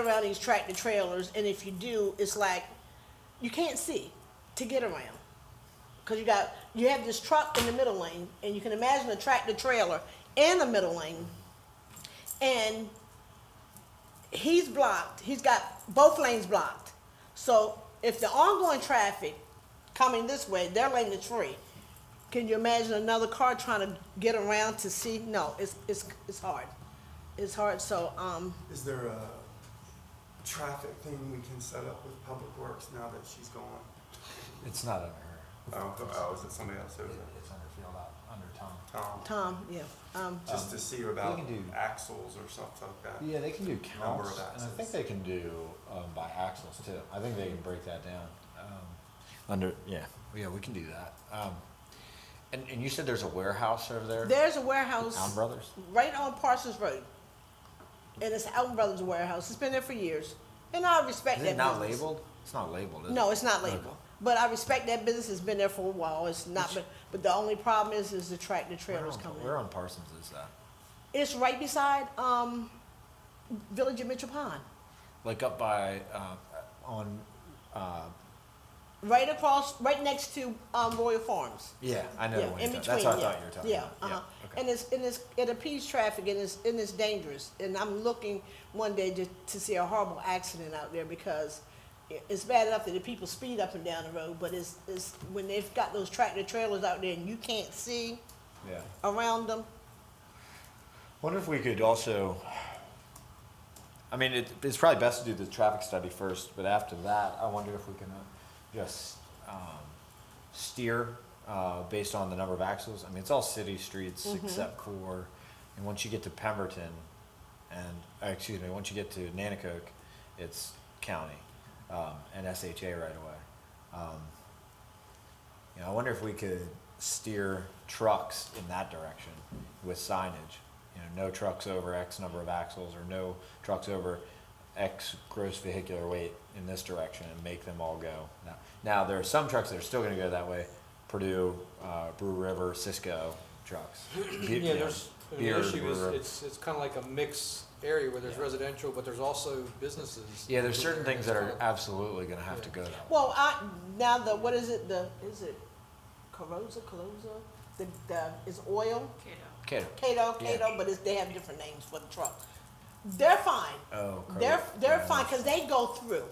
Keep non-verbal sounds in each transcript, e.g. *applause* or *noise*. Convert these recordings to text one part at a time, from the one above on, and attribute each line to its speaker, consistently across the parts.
Speaker 1: around these tractor trailers, and if you do, it's like you can't see to get around because you got you have this truck in the middle lane, and you can imagine a tractor trailer in the middle lane, and he's blocked. He's got both lanes blocked. So if the ongoing traffic coming this way, their lane is free. Can you imagine another car trying to get around to see? No, it's it's it's hard. It's hard. So um,
Speaker 2: Is there a traffic thing we can set up with Public Works now that she's gone?
Speaker 3: It's not under her.
Speaker 2: Oh, oh, is it somebody else over there?
Speaker 3: It's under field out, under Tom.
Speaker 2: Tom,
Speaker 1: Tom, yeah. Um,
Speaker 2: just to see about
Speaker 3: we can do-
Speaker 2: axles or something like that.
Speaker 3: Yeah, they can do
Speaker 2: Number of
Speaker 3: counts, and I think
Speaker 2: axes.
Speaker 3: they can do, um, by axles too. I think they can break that down. Um, Under, yeah, yeah, we can do that. Um, and, and you said there's a warehouse over there?
Speaker 1: there's a warehouse
Speaker 3: Town Brothers?
Speaker 1: right on Parsons Road, and it's Alton Brothers Warehouse. It's been there for years, and I respect
Speaker 3: Is
Speaker 1: that.
Speaker 3: it not
Speaker 1: business.
Speaker 3: labeled? It's not labeled, is it?
Speaker 1: No, it's not
Speaker 3: Okay.
Speaker 1: labeled. But I respect that business has been there for a while. It's not,
Speaker 3: Which-
Speaker 1: but, but the only problem is, is the tractor
Speaker 3: Where
Speaker 1: trailers
Speaker 3: on-
Speaker 1: coming
Speaker 3: Where
Speaker 1: in.
Speaker 3: on Parsons is that?
Speaker 1: It's right beside, um, Village of Mitchell Pond.
Speaker 3: Like up by, uh, on, uh,
Speaker 1: Right across, right next to, um, Royal Farms.
Speaker 3: yeah, I know the
Speaker 1: Yeah,
Speaker 3: one
Speaker 1: in
Speaker 3: you're
Speaker 1: between,
Speaker 3: talking- That's what I
Speaker 1: yeah.
Speaker 3: thought you were talking
Speaker 1: Yeah,
Speaker 3: about.
Speaker 1: uh-huh.
Speaker 3: okay.
Speaker 1: And it's, and it's, it impedes traffic and it's, and it's dangerous. And I'm looking one day to, to see a horrible accident out there because i- it's bad enough that the people speed up and down the road, but it's, it's, when they've got those tractor trailers out there and you can't see
Speaker 3: Yeah.
Speaker 1: around them,
Speaker 3: Wonder if we could also, I mean, it, it's probably best to do the traffic study first, but after that, I wonder if we can uh, just, um, steer, uh, based on the number of axles. I mean, it's all city streets except for, and once you get to Pemberton and, uh, excuse me, once you get to Nanacoke, it's county, um, and SHA right away. Um, you know, I wonder if we could steer trucks in that direction with signage. You know, no trucks over X number of axles or no trucks over X gross vehicular weight in this direction and make them all go. Now, now there are some trucks that are still going to go that way. Purdue, uh, Brew River, Cisco trucks. Be- you
Speaker 4: *clears throat* Yeah,
Speaker 3: know,
Speaker 4: there's, the
Speaker 3: beer,
Speaker 4: issue
Speaker 3: Brew
Speaker 4: is,
Speaker 3: River.
Speaker 4: it's, it's kind of like a mixed area where there's
Speaker 3: Yeah.
Speaker 4: residential, but there's also businesses.
Speaker 3: yeah, there's certain things that are
Speaker 4: It's kinda-
Speaker 3: absolutely going to have to go that way.
Speaker 1: Well, I, now the, what is it, the, is it Carosa, Calosa? The, the, it's oil,
Speaker 3: Okay.
Speaker 1: Cato,
Speaker 3: Yeah.
Speaker 1: Cato, but it's, they have different names for the truck. They're fine.
Speaker 3: Oh,
Speaker 1: They're,
Speaker 3: correct.
Speaker 1: they're
Speaker 3: Yeah.
Speaker 1: fine, cause they go through.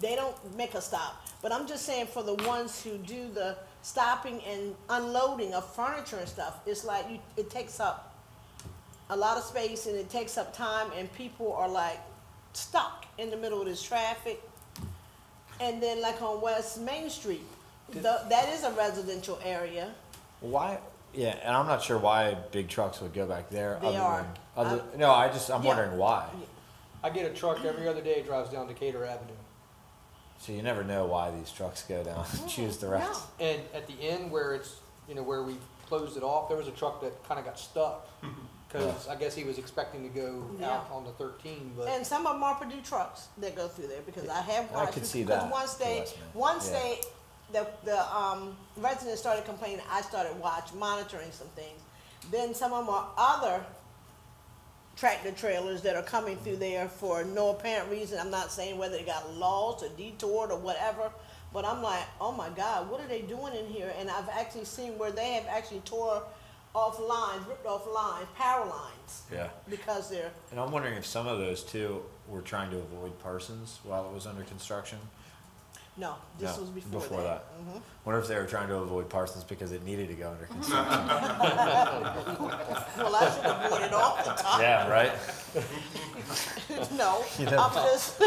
Speaker 1: They don't make a stop. But I'm just saying for the ones who do the stopping and unloading of furniture and stuff, it's like you, it takes up a lot of space and it takes up time and people are like stuck in the middle of this traffic. And then like on West Main Street, tho- that is a residential area.
Speaker 3: Why? Yeah, and I'm not sure why big trucks would go back there.
Speaker 1: They
Speaker 3: other
Speaker 1: are. Uh,
Speaker 3: Than, other, no, I just I'm
Speaker 1: Yeah.
Speaker 3: wondering why.
Speaker 4: I get a truck every other day, drives down Decatur Avenue.
Speaker 3: So you never know why these trucks go down.
Speaker 1: Oh,
Speaker 3: Choose the
Speaker 1: Yeah.
Speaker 3: routes.
Speaker 4: And at the end where it's, you know, where we closed it off, there was a truck that kind of got
Speaker 1: *laughs*
Speaker 4: stuck. Because I guess he was expecting to go
Speaker 1: Yeah.
Speaker 4: out on the thirteen, but
Speaker 1: And some of them are Purdue trucks that go through there because I have
Speaker 3: I
Speaker 1: watched.
Speaker 3: could
Speaker 1: it,
Speaker 3: see
Speaker 1: 'cause
Speaker 3: that,
Speaker 1: Once they,
Speaker 3: trust me.
Speaker 1: once
Speaker 3: Yeah.
Speaker 1: they, the, the, um, residents started complaining, I started watch, monitoring some things. Then some of them are other tractor trailers that are coming through there for no apparent reason. I'm not saying whether they got lost or detoured or whatever, but I'm like, oh my God, what are they doing in here? And I've actually seen where they have actually tore off lines, ripped off lines, power lines,
Speaker 3: Yeah.
Speaker 1: because they're
Speaker 3: And I'm wondering if some of those too were trying to avoid Parsons while it was under construction.
Speaker 1: No, this
Speaker 3: No,
Speaker 1: was before,
Speaker 3: before
Speaker 1: that.
Speaker 3: that. Wonder if they were trying to avoid Parsons because it needed to go under construction.
Speaker 1: Mm-hmm. Well, I should have bought it off the top.
Speaker 3: *laughs* yeah, *laughs* right.
Speaker 1: *laughs* No,
Speaker 3: *laughs* You never
Speaker 1: I'm
Speaker 3: know.
Speaker 1: just.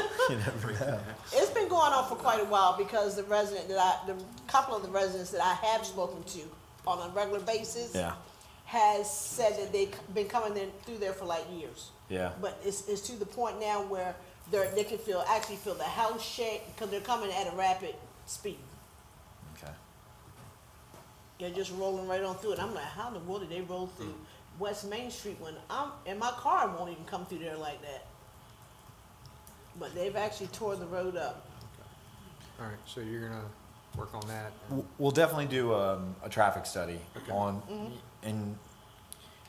Speaker 1: It's been going on for quite a while because the resident that I, the couple of the residents that I have spoken to on a regular basis
Speaker 3: Yeah.
Speaker 1: has said that they've been coming in through there for like years.
Speaker 3: Yeah.
Speaker 1: But it's, it's to the point now where they're, they can feel, actually feel the house shake because they're coming at a rapid speed.
Speaker 3: Okay.
Speaker 1: They're just rolling right on through it. I'm like, how in the world did they roll through West Main Street when I'm and my car won't even come through there like that? But they've actually tore the road up.
Speaker 4: all right, so you're gonna work on that.
Speaker 3: W- We'll definitely do um, a traffic study on, and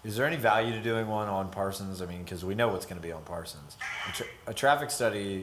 Speaker 3: is there any value to doing one on Parsons? I mean, because we know what's going to be on Parsons. I'm sure- a traffic study